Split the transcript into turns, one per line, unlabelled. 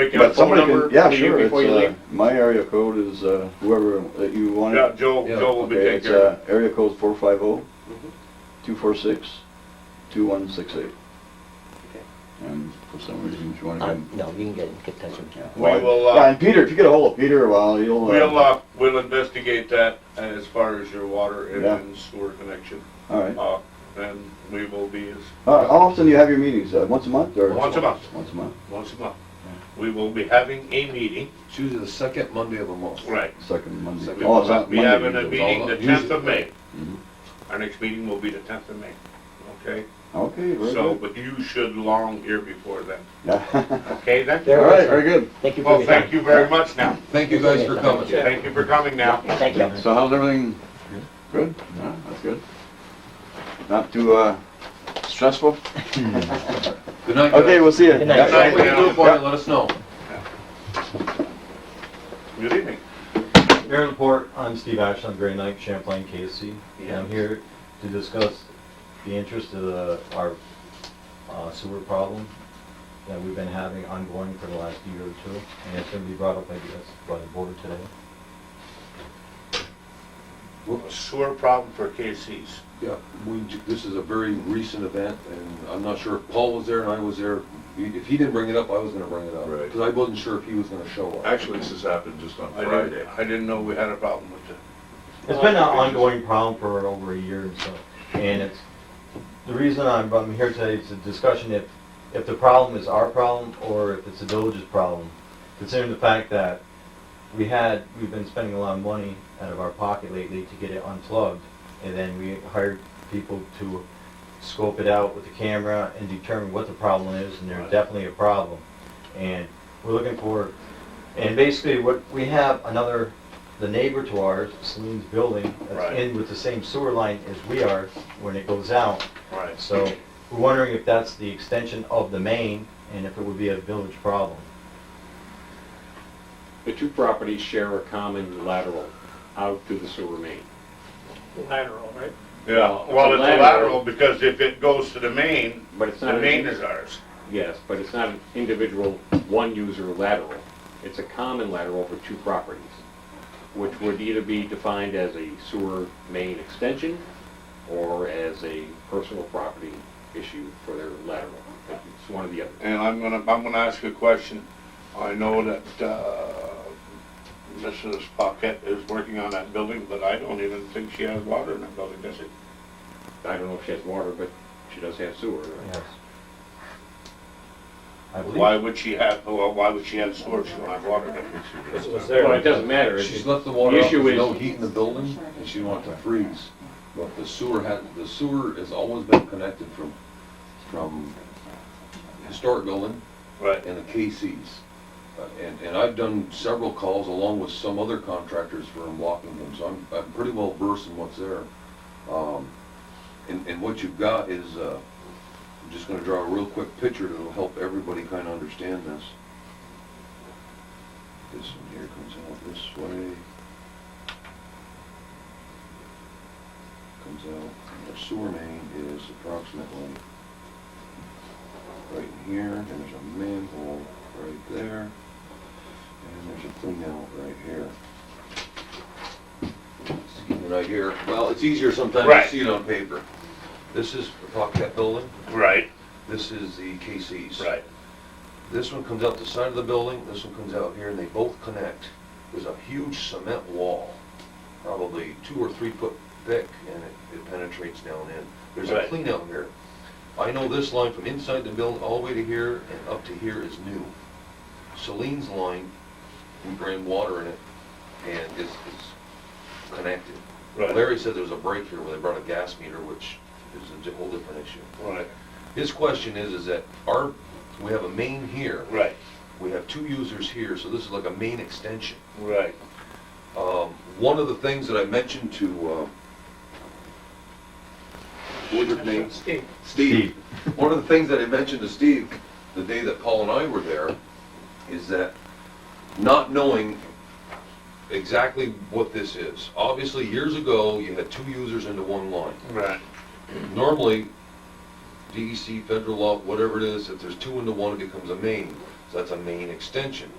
Take out
But
phone
somebody
number
can, yeah,
for you
sure, it's,
before you
uh,
leave.
my area code is, uh, whoever that you want
Yeah,
it.
Joe,
Yeah.
Joe will be
Okay,
taking
it's,
care of
uh,
it. Mm-hmm.
area code four five oh, two four six, two one six eight. And for some reason, if you wanna
Uh,
come.
No, you can get, get touch with
yeah.
We
Well,
will, uh,
Yeah, and Peter, if you get a hold of Peter, well, he'll,
We'll,
uh,
uh, we'll investigate that as far as your water and-
Yeah.
and sewer connection.
alright.
Uh, and we will be as,
Uh, how often do you have your meetings, uh, once a month or?
Once a month.
Once a month,
once a month, we will be having a meeting.
It's usually the second Monday of the month.
Right.
second Monday.
Second
Oh, it's not
We
Monday
have a
meetings.
meeting the
Usually-
tenth of May.
Mhm.
Our next meeting will be the tenth of May, okay?
Okay, very
So,
good.
but you should long here before then,
Yeah.
okay then?
There
All
it
right,
is.
very good.
Thank you for
Well,
your
Oh, thank
time.
you very much now.
Thank you guys for coming.
Thank you for coming now.
Thank you.
So how's everything? Good? Yeah, that's good. Not too, uh, stressful?
Good night, guys.
Okay, we'll see you.
Good night.
Yeah,
If there's anything we can do for you,
Yeah.
let us know.
Good evening.
Aaron Laporte, I'm Steve Ashland, Gray Knight, Champlain, KC. And I'm here to discuss the interest of the, our uh, sewer problem that we've been having ongoing for the last year or two. And it's gonna be brought up, I guess, by the board today.
Sewer problem for KC's.
Yeah, we, j- this is a very recent event, and I'm not sure if Paul was there and I was there. He- If he didn't bring it up, I was gonna bring it up.
Right.
Because I wasn't sure if he was gonna show up.
Actually, this has happened just on
I didn't,
Friday.
I didn't know we had a problem with it.
It's been an ongoing problem for over a year and so, and it's, the reason I'm, I'm here today is a discussion if, if the problem is our problem or if it's the village's problem, considering the fact that we had, we've been spending a lot of money out of our pocket lately to get it unplugged, and then we hired people to scope it out with the camera and determine what the problem is, and there's definitely a problem. And we're looking for, and basically what, we have another, the neighbor to ours, Celine's building,
Right.
that's in with the same sewer line as we are when it goes out.
Right.
So we're wondering if that's the extension of the main and if it would be a village problem.
The two properties share a common lateral out to the sewer main.
lateral, right?
Yeah, well, it's a lateral because if it goes to the main,
But it's not.
the
an-
main is ours.
Yes, but it's not an individual one-user lateral. It's a common lateral for two properties, which would either be defined as a sewer main extension or as a personal property issue for their lateral. It's one or the other.
And I'm gonna, I'm gonna ask a question. I know that, uh, Mrs. Paquette is working on that building, but I don't even think she has water in that building, does it?
I don't know if she has water, but she does have sewer.
Yes. I believe.
Why would she have, well, why would she have sewer if she don't have water in it?
It was
Well,
there.
it doesn't matter. It-
She's left the water
The
up,
issue
there's
is-
no heat in the building, and she wants to freeze. But the sewer had, the sewer has always been connected from, from historic building
Right,
and the KC's. Uh, And, and I've done several calls along with some other contractors for unblocking them, so I'm, I'm pretty well versed in what's there. Um, And, and what you've got is, uh, I'm just gonna draw a real quick picture that'll help everybody kinda understand this. This one here comes out this way. Comes out, and the sewer main is approximately right in here, and there's a manhole right there, and there's a clean out right here. Right here, well, it's easier sometimes
Right.
to see it on paper. This is the Pocket Building,
right,
this is the KC's.
right.
This one comes out the side of the building, this one comes out here, and they both connect. There's a huge cement wall, probably two or three foot thick, and it- it penetrates down in. There's a
Right.
clean out here. I know this line from inside the building all the way to here and up to here is new. Celine's line, we drain water in it, and it's, it's connected.
Right.
Larry said there was a break here where they brought a gas meter, which is a di- whole different issue.
Right,
His question is, is that our, we have a main here.
right,
We have two users here, so this is like a main extension.
right.
Um, One of the things that I mentioned to, uh, what was his name?
Steve,
Steve. One of the things that I mentioned to Steve the day that Paul and I were there is that not knowing exactly what this is. Obviously, years ago, you had two users into one line. E
Right.
Normally, DEC, federal law, whatever it is, if there's two into one, it becomes a main. So that's a main extension.